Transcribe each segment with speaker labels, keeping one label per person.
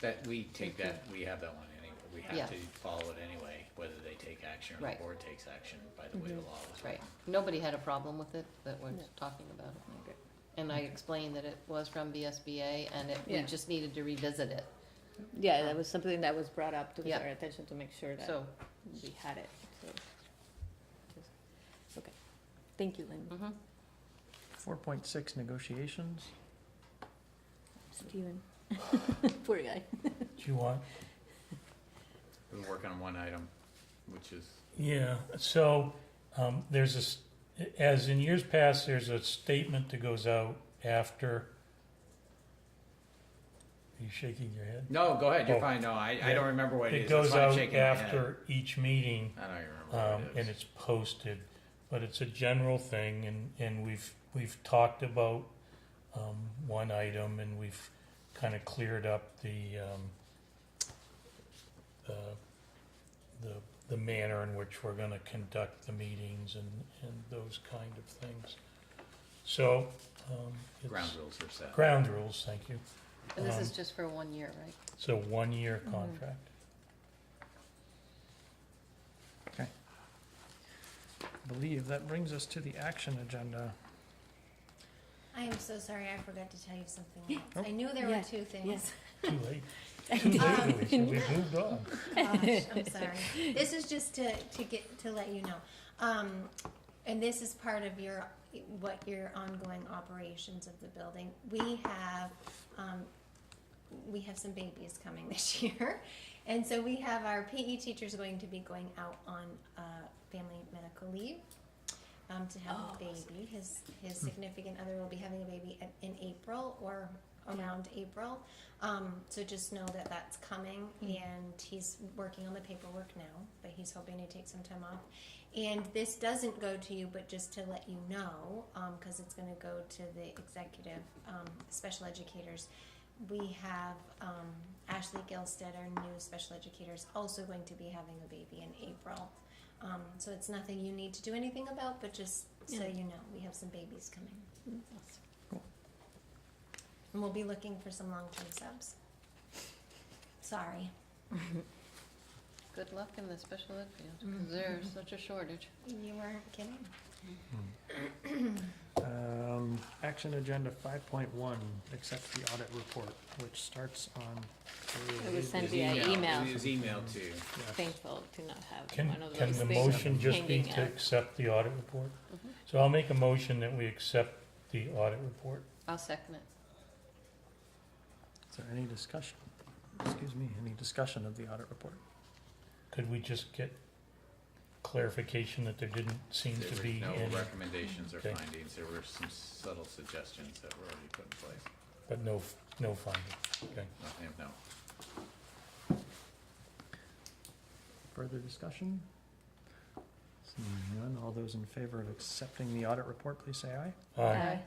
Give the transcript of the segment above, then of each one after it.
Speaker 1: That, we take that, we have that one anyway, we
Speaker 2: Yeah.
Speaker 1: have to follow it anyway, whether they take action or
Speaker 2: Right. Mm-hmm.
Speaker 1: the board takes action by the way the law was
Speaker 2: Right,
Speaker 1: written.
Speaker 2: nobody had a problem with it that we're
Speaker 3: No.
Speaker 2: talking about. it. And I explained that it was from BSBA and it, we
Speaker 3: Yeah.
Speaker 2: just needed to revisit it, Um,
Speaker 3: Yeah, that was something that was brought up to
Speaker 2: Yeah.
Speaker 3: our attention to make sure that
Speaker 2: so.
Speaker 3: we had it, so. just- Okay, thank you, Lynn.
Speaker 2: mhm.
Speaker 4: Four point six, negotiations.
Speaker 3: Steven. Poor guy.
Speaker 5: Do you want?
Speaker 1: We're working on one item, which is,
Speaker 5: Yeah, so, um, there's a, s- as in years past, there's a statement that goes out after. Are you shaking your head?
Speaker 1: no, go ahead, you're
Speaker 5: Oh.
Speaker 1: fine, no, I, I
Speaker 5: Yeah.
Speaker 1: don't remember what it
Speaker 5: It
Speaker 1: is, that's
Speaker 5: goes
Speaker 1: why I'm
Speaker 5: out
Speaker 1: shaking my head.
Speaker 5: after each meeting,
Speaker 1: I don't even
Speaker 5: um,
Speaker 1: remember what it
Speaker 5: and
Speaker 1: is.
Speaker 5: it's posted, but it's a general thing, and, and we've, we've talked about, um, one item, and we've kinda cleared up the, um, the, the, the manner in which we're gonna conduct the meetings and, and those kind of things. So, um,
Speaker 1: Ground
Speaker 5: it's,
Speaker 1: rules are set.
Speaker 5: ground rules, thank you,
Speaker 2: And this is
Speaker 5: Um,
Speaker 2: just for one year, right?
Speaker 5: it's a one-year
Speaker 3: Mhm.
Speaker 5: contract.
Speaker 4: I believe that brings us to the action agenda.
Speaker 6: I am so sorry, I forgot to tell you something
Speaker 4: Oh.
Speaker 6: else. I knew there
Speaker 3: Yeah,
Speaker 6: were two things.
Speaker 3: yes.
Speaker 5: Too late, too late, Alicia, we've moved on.
Speaker 6: Gosh, I'm sorry. This is just to, to get, to let you know. Um, and this is part of your, what your ongoing operations of the building. We have, um, we have some babies coming this year. And so we have our PE teachers going to be going out on, uh, family medical leave, um, to have
Speaker 3: Oh,
Speaker 6: a baby. His, his significant other will be having a baby in, in April or around April. Um, so just know that that's coming, and he's working on the paperwork now, but he's hoping to take some time off. And this doesn't go to you, but just to let you know, because it's going to go to the executive um, special educators. We have um, Ashley Gilstead, our new special educator, is also going to be having a baby in April. Um, so it's nothing you need to do anything about, but just so
Speaker 3: Yeah.
Speaker 6: you know, we have some babies coming, and we'll be looking for some long-term subs. Sorry.
Speaker 2: Good luck in the special ed field,
Speaker 3: Mm-hmm.
Speaker 6: Mhm.
Speaker 2: because there's such a shortage.
Speaker 6: You weren't kidding.
Speaker 4: Um, action agenda five point one, accept the audit report, which starts on.
Speaker 3: It was sent
Speaker 1: It's
Speaker 3: via
Speaker 1: email.
Speaker 3: email.
Speaker 1: It is email too.
Speaker 4: Yeah.
Speaker 3: Thankful to not have
Speaker 5: Can,
Speaker 3: one of
Speaker 5: can
Speaker 3: those
Speaker 5: the
Speaker 3: things.
Speaker 5: motion just be
Speaker 3: hanging
Speaker 5: to
Speaker 3: out.
Speaker 5: accept the audit report?
Speaker 2: Mhm.
Speaker 5: So I'll make a motion that we accept the audit report.
Speaker 2: I'll second it.
Speaker 4: Is there any discussion? Excuse me, any discussion of the audit report?
Speaker 5: Could we just get clarification that there didn't seem
Speaker 1: There
Speaker 5: to
Speaker 1: were
Speaker 5: be
Speaker 1: no
Speaker 5: any,
Speaker 1: recommendations or
Speaker 5: Okay.
Speaker 1: findings, there were some subtle suggestions that were already put in place,
Speaker 5: but no, no finding? Okay.
Speaker 1: nothing of note.
Speaker 4: Further discussion? Seeing none, all those in favor of accepting the audit report, please say aye.
Speaker 5: Aye.
Speaker 3: Aye.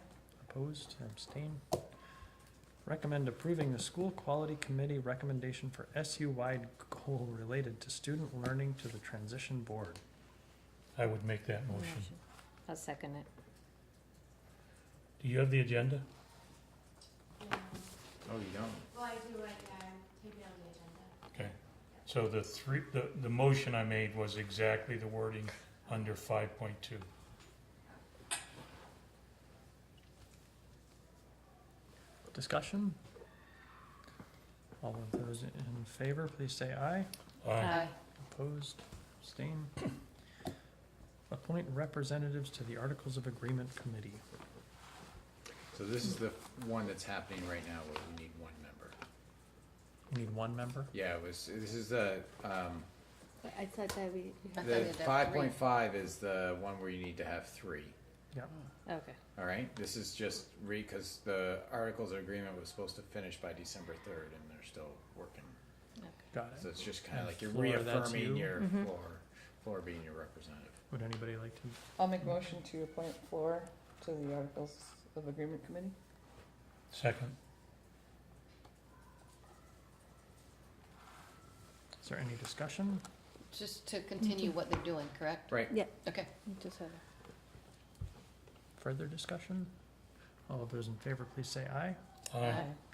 Speaker 4: Opposed, abstain. Recommend approving the school quality committee recommendation for SU-wide goal related to student learning to the transition board.
Speaker 5: I would make that motion.
Speaker 3: Motion. I'll second it.
Speaker 5: Do you have the agenda?
Speaker 1: Oh, you don't?
Speaker 6: Well, I do, I, um, take it on the agenda.
Speaker 5: Okay. So the three, the, the motion I made was exactly the wording under five point two.
Speaker 4: Discussion? All of those in favor, please say aye.
Speaker 3: Uh,
Speaker 5: Aye.
Speaker 4: Opposed, abstain. Appoint representatives to the Articles of Agreement Committee.
Speaker 1: So this is the one that's happening right now, where we need one member.
Speaker 4: We need one member.
Speaker 1: Yeah, it was, this is the, um,
Speaker 3: But I thought that we,
Speaker 2: I thought
Speaker 1: the
Speaker 2: you had to have
Speaker 1: five
Speaker 2: three.
Speaker 1: point five is the one where you need to have three,
Speaker 3: okay,
Speaker 1: all right? This is just re, cause the articles of agreement was supposed to finish by December third, and they're still working.
Speaker 4: Got
Speaker 1: So
Speaker 4: it.
Speaker 1: it's just kinda
Speaker 4: Oh. And
Speaker 1: like you're
Speaker 4: Flora, that's
Speaker 1: reaffirming
Speaker 4: you?
Speaker 1: your
Speaker 2: Mm-hmm.
Speaker 3: Mhm.
Speaker 1: floor, floor being your representative.
Speaker 4: Would anybody like to?
Speaker 7: I'll make a motion to appoint Flora to the Articles of Agreement Committee.
Speaker 5: Second.
Speaker 4: Is there any discussion?
Speaker 2: Just to continue what they're doing, correct?
Speaker 1: Right.
Speaker 3: Yeah.
Speaker 2: Okay,
Speaker 3: you just have,
Speaker 4: Further discussion? All of those in favor, please say aye.
Speaker 5: Aye.
Speaker 3: aye.